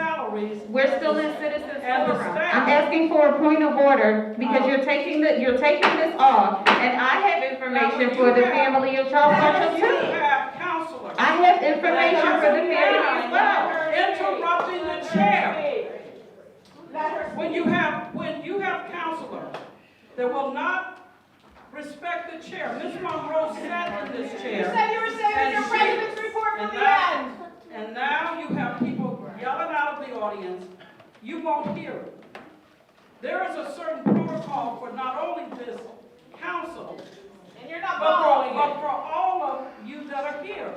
always. We're still in citizens And the forum. staff. I'm asking for a point of order because you're taking the, you're taking this off and I have information for the family of Charles Now, Marshall you too. have counselors. I have information for the family as well. Interrupting the chair. When you have, when you have counselors that will not respect the chair, Ms. Monroe sat in this chair. You said you were saving your And she- president's report for and the that- end. And now you have people yelling out of the audience, you won't hear it. There is a certain protocol for not only this council, And you're not but for, following but it. for all of you that are here.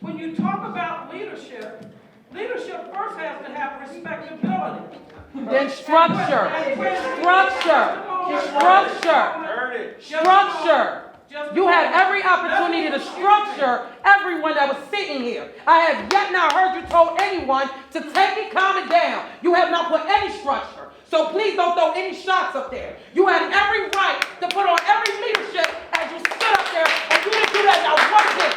When you talk about leadership, leadership first has to have respectability. Then structure, structure, structure, structure. You had every opportunity to structure everyone that was sitting here. I have yet not heard you told anyone to take it, calm it down. You have not put any structure. So please don't throw any shots up there. You had every right to put on every leadership as you stood up there and you didn't do that. I watched it.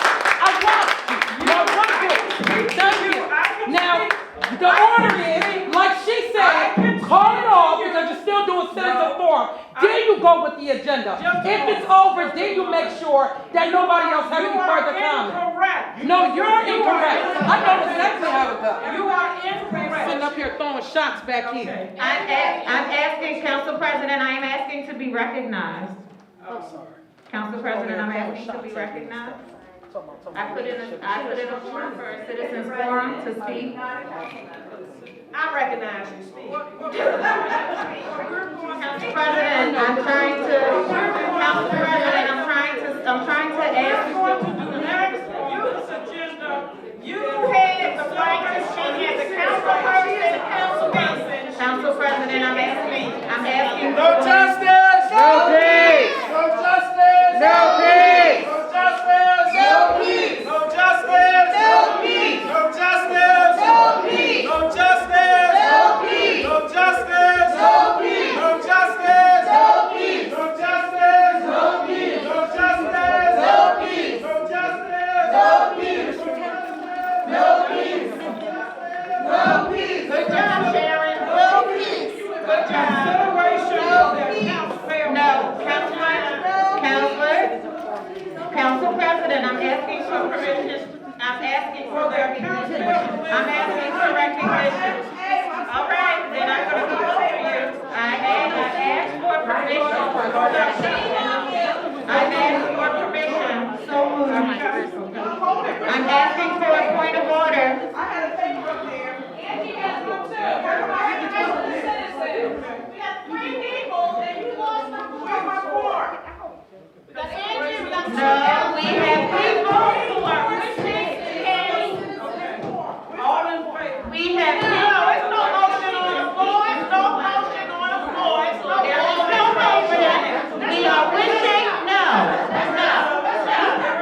I watched you. I watched it. Thank you. Now, the order is, like she said, call it off because you're still doing citizen forum. Then you go with the agenda. If it's over, then you make sure that nobody else has any further comment. Correct. No, you're incorrect. I know exactly how it goes. You are Sitting incorrect. up here throwing shots back here. Okay, I'm, a- I'm asking, Council President, I am asking to be recognized. Oh, I'm sorry. Council President, I'm asking to be recognized. I put in, a I put in a form for a citizens forum to speak. I recognize you, Steve. What- what- We're going to- Council President, I'm trying to, Council President, I'm trying to, I'm trying to ask. We're going to do next on this agenda, uh, you You had the right to speak as a council person, as a council person. Council President, I'm asking, I'm asking. No justice! No peace! No justice! No peace! No justice! No peace! No justice! No peace! No justice! No peace! No justice! No peace! No justice! No peace! No justice! No peace! No justice! No peace! No justice! No peace! No justice! No peace! No peace! No peace! No justice! consideration of that council failed. No, Councilman, Counselor, Council President, I'm asking for permission, I'm asking for recognition. I'm asking for recognition. All right, then I'm gonna go over you. I asked, I asked for permission for that. I'm asking for permission. So moved. I'm asking for a point of order. I had a thing from there. Angie has one too. We're recognizing the citizens. We got three people and you lost my four. Where's my four? We got Angie, we got. No, we have, All in favor? we have. No, it's no motion on the floor, it's no motion on the floor, it's no. There is no motion. We are wishing, no, no,